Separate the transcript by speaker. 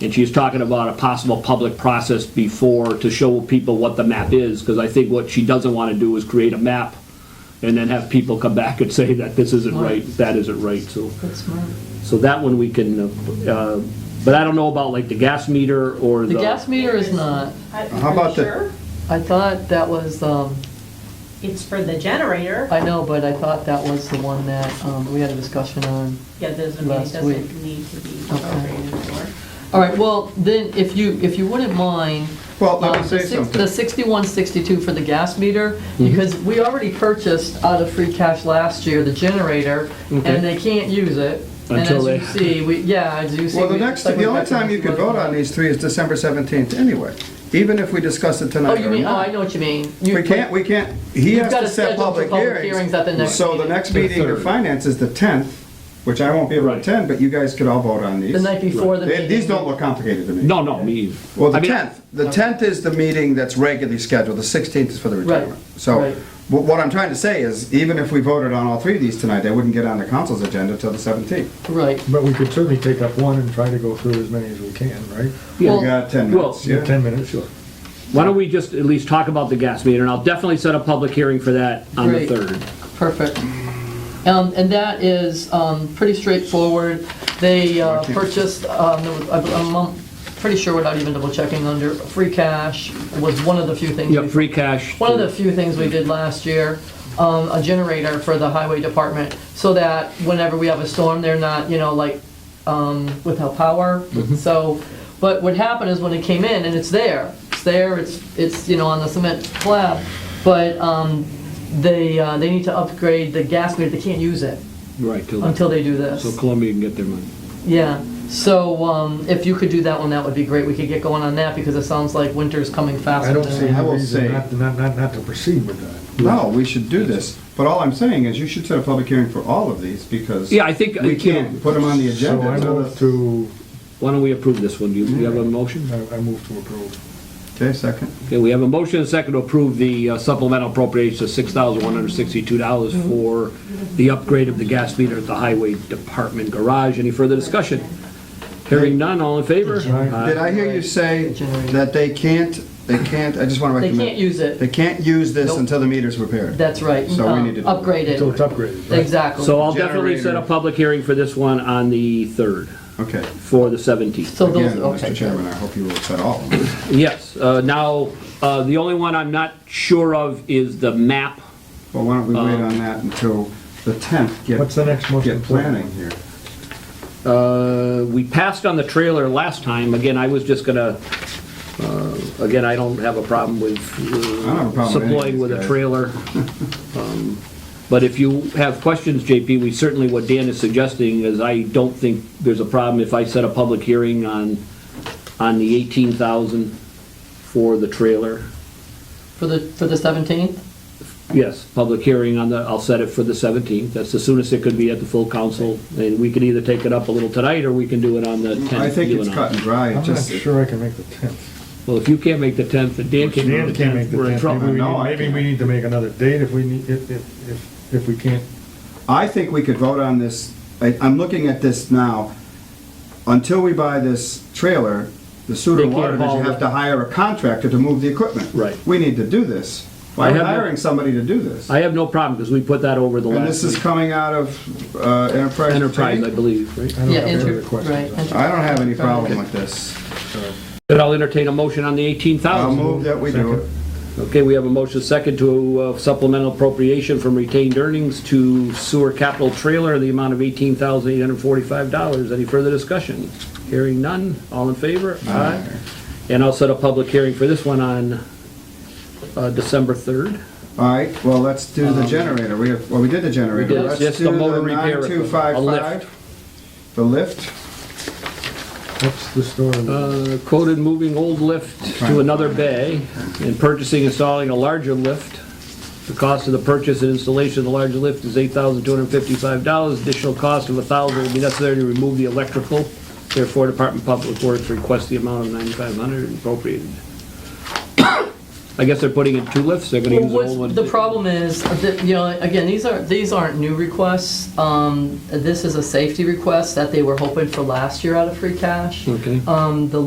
Speaker 1: And she's talking about a possible public process before, to show people what the map is, because I think what she doesn't want to do is create a map and then have people come back and say that this isn't right, that isn't right, so.
Speaker 2: That's smart.
Speaker 1: So that one we can, uh, uh, but I don't know about like the gas meter or the.
Speaker 2: The gas meter is not.
Speaker 3: How about the-
Speaker 4: Uh, Sure.
Speaker 2: I thought that was, um,
Speaker 4: It's for the generator.
Speaker 2: I know, but I thought that was the one that, um, we had a discussion on.
Speaker 4: Yeah, there's, I mean, it
Speaker 2: Last week.
Speaker 4: doesn't need to be
Speaker 2: Okay.
Speaker 4: appropriated for.
Speaker 2: All right, well, then, if you, if you wouldn't mind.
Speaker 3: Well, let me
Speaker 2: um, the
Speaker 3: say
Speaker 2: six-
Speaker 3: something. Mm-hmm.
Speaker 2: The sixty-one, sixty-two for the gas meter, because we already purchased out of free cash last year, the generator,
Speaker 1: Okay.
Speaker 2: and they can't use it. And
Speaker 1: Until
Speaker 2: as you
Speaker 1: they-
Speaker 2: see, we, yeah, as you see.
Speaker 3: Well, the
Speaker 2: we-
Speaker 3: next,
Speaker 2: like
Speaker 3: the
Speaker 2: we're
Speaker 3: only
Speaker 2: back to
Speaker 3: time you could vote on these three is December 17th anyway, even if we discuss it
Speaker 2: Oh,
Speaker 3: tonight
Speaker 2: you
Speaker 3: or
Speaker 2: mean, oh, I
Speaker 3: not.
Speaker 2: know what you mean. You-
Speaker 3: We can't, we can't, he
Speaker 2: You've
Speaker 3: has
Speaker 2: gotta
Speaker 3: to set
Speaker 2: schedule
Speaker 3: public
Speaker 2: for public
Speaker 3: hearings.
Speaker 2: hearings at the next
Speaker 3: So the
Speaker 2: meeting.
Speaker 3: next
Speaker 1: The
Speaker 3: meeting of
Speaker 1: third.
Speaker 3: finance is the 10th, which I won't be able to
Speaker 1: Right.
Speaker 3: attend, but you guys could all vote on
Speaker 2: The
Speaker 3: these.
Speaker 2: night before the
Speaker 3: They-
Speaker 2: meeting.
Speaker 3: These don't look complicated to me.
Speaker 1: No, no, me. either.
Speaker 3: Well, the
Speaker 1: I mean,
Speaker 3: 10th, the 10th is the meeting that's regularly scheduled, the 16th is for the
Speaker 2: Right,
Speaker 3: retirement. So
Speaker 2: right.
Speaker 3: wh- what I'm trying to say is, even if we voted on all three of these tonight, they wouldn't get on the council's agenda till the 17th.
Speaker 2: Right.
Speaker 5: But we could certainly take up one and try to go through as many as we can, right?
Speaker 3: We
Speaker 2: Well,
Speaker 3: got 10 minutes,
Speaker 1: Well,
Speaker 3: yeah.
Speaker 5: Yeah, ten minutes, sure.
Speaker 1: Why don't we just at least talk about the gas meter, and I'll definitely set a public hearing for that on the
Speaker 2: Great.
Speaker 1: third.
Speaker 2: Perfect. Um, And that is um, pretty straightforward. They uh,
Speaker 3: Okay.
Speaker 2: purchased, um, there was- I'm I'm pretty sure without even double checking, under free cash was one of the few things.
Speaker 1: Yep,
Speaker 2: we-
Speaker 1: free cash.
Speaker 2: One of the few things we did last year, um, a generator for the highway department, so that whenever we have a storm, they're not, you know, like, um, without power. So, but what happened is when it came in, and it's there, it's there, it's, it's, you know, on the cement slab, but, um, they, uh, they need to upgrade the gas meter, they can't use it
Speaker 1: Right, till-
Speaker 2: until they do this.
Speaker 1: so Columbia can get their money.
Speaker 2: Yeah, so, um, if you could do that one, that would be great, we could get going on that, because it sounds like winter's coming faster.
Speaker 5: I don't
Speaker 2: than-
Speaker 5: see
Speaker 3: I
Speaker 5: any
Speaker 3: will say-
Speaker 5: reason not, not, not, not to proceed with that.
Speaker 3: No, we should do this, but all I'm saying is you should set a public hearing for all of these because
Speaker 1: Yeah, I think,
Speaker 3: we
Speaker 1: you know,
Speaker 3: can't put them on the
Speaker 5: So
Speaker 3: agenda.
Speaker 5: I
Speaker 3: till
Speaker 5: move
Speaker 3: the-
Speaker 5: to, uh,
Speaker 1: why don't we approve this one? Do you do you have a motion?
Speaker 5: I I move to approve.
Speaker 3: Okay, second.
Speaker 1: Okay, we have a motion and a second to approve the uh, supplemental appropriation of $6,162 for the upgrade of the gas meter at the Highway Department garage. Any further discussion? Hearing none, all in favor?
Speaker 5: Aye.
Speaker 3: Did I hear you say that they can't, they can't, I just want to
Speaker 2: They
Speaker 3: recommend.
Speaker 2: can't use it.
Speaker 3: They can't use this
Speaker 2: Nope.
Speaker 3: until the meter's repaired.
Speaker 2: That's right.
Speaker 3: So we
Speaker 2: um,
Speaker 3: need to-
Speaker 2: Upgraded.
Speaker 5: Until it's upgraded, right?
Speaker 2: Exactly.
Speaker 1: Uh, So I'll definitely set a public hearing for this one on the 3rd,
Speaker 3: Okay.
Speaker 1: for the 17th.
Speaker 2: So Oh, those,
Speaker 3: Again,
Speaker 2: okay.
Speaker 3: Mr. Chairman, I hope you will set all of them.
Speaker 1: Yes, uh, now, uh, the only one I'm not sure of is the map.
Speaker 3: Well, why don't we wait on that until the 10th? Get-
Speaker 5: What's the next most
Speaker 3: Get planning
Speaker 5: important?
Speaker 3: here.
Speaker 1: Uh, We passed on the trailer last time, again, I was just gonna, uh, again, I don't have a problem with
Speaker 3: don't have a problem with any
Speaker 1: uh,
Speaker 3: of
Speaker 1: supplying
Speaker 3: these
Speaker 1: with a
Speaker 3: guys.
Speaker 1: trailer. Um, But if you have questions, JP, we certainly, what Dan is suggesting is I don't think there's a problem if I set a public hearing on, on the 18,000 for the trailer.
Speaker 2: For the, for the 17th?
Speaker 1: Yes, public hearing on the, I'll set it for the 17th. That's the soonest it could be at the full council. And we can either take it up a little tonight, or we can do it on the 10th.
Speaker 3: Mm, I think
Speaker 1: you
Speaker 3: it's
Speaker 1: and I.
Speaker 3: cut and dry. It
Speaker 5: I'm not
Speaker 3: just-
Speaker 5: sure I can make the tenth.
Speaker 1: Well, if you can't make the 10th, and Dan can't
Speaker 5: Dan
Speaker 1: make the
Speaker 5: can't make
Speaker 1: 10th,
Speaker 5: the
Speaker 1: we're in
Speaker 5: tenth.
Speaker 1: trouble.
Speaker 3: No,
Speaker 5: Maybe we need-
Speaker 3: I
Speaker 5: Maybe
Speaker 3: can't.
Speaker 5: we need to make another date if we need, if, if, if- if we can't.
Speaker 3: I think we could vote on this, I, I'm looking at this now. Until we buy this trailer, the sewer
Speaker 1: They
Speaker 3: and
Speaker 1: can't
Speaker 3: water,
Speaker 1: haul
Speaker 3: you
Speaker 1: it.
Speaker 3: have to hire a contractor to move the equipment.
Speaker 1: Right.
Speaker 3: We need to do this. Why
Speaker 1: I
Speaker 3: are we
Speaker 1: have no-
Speaker 3: hiring somebody to do this?
Speaker 1: I have no problem, because we put that over the
Speaker 3: And this
Speaker 1: last
Speaker 3: is coming out of uh, enterprise.
Speaker 1: enterprise, I
Speaker 3: pay?
Speaker 1: believe, right?
Speaker 5: I don't
Speaker 2: Yeah,
Speaker 5: have any
Speaker 2: enter-
Speaker 5: other questions.
Speaker 2: right,
Speaker 1: Uh,
Speaker 2: enter-
Speaker 3: I don't have any problem with this.
Speaker 1: Then I'll entertain a motion on the
Speaker 3: I'll
Speaker 1: 18,000.
Speaker 3: move that we do it.
Speaker 1: Okay, we have a motion second to uh, supplemental appropriation from retained earnings to sewer capital trailer, in the amount of $18,845. Any further discussion? Hearing none, all in favor? Aye. And I'll set a public hearing for this one on uh, December 3rd.
Speaker 3: All right, well, let's do the generator. We have, well, we did the generator.
Speaker 1: Um, did.
Speaker 3: Let's
Speaker 1: Just
Speaker 3: do
Speaker 1: the motor repair equipment, a lift.
Speaker 3: 9255. The lift.
Speaker 5: What's the story?
Speaker 1: Uh, Quoted moving old lift to another bay and purchasing, installing a larger lift. The cost of the purchase and installation of the larger lift is $8,255. Additional cost of $1,000 will be necessary to remove the electrical. Therefore, Department of Public Works requests the amount of $9,500 appropriated. I guess they're putting in two lifts, they're gonna use the
Speaker 2: Well,
Speaker 1: old one.
Speaker 2: what's- The problem is, that, you know, again, these are, these aren't new requests. Um, This is a safety request that they were hoping for last year out of free cash.
Speaker 1: Okay.
Speaker 2: Um, The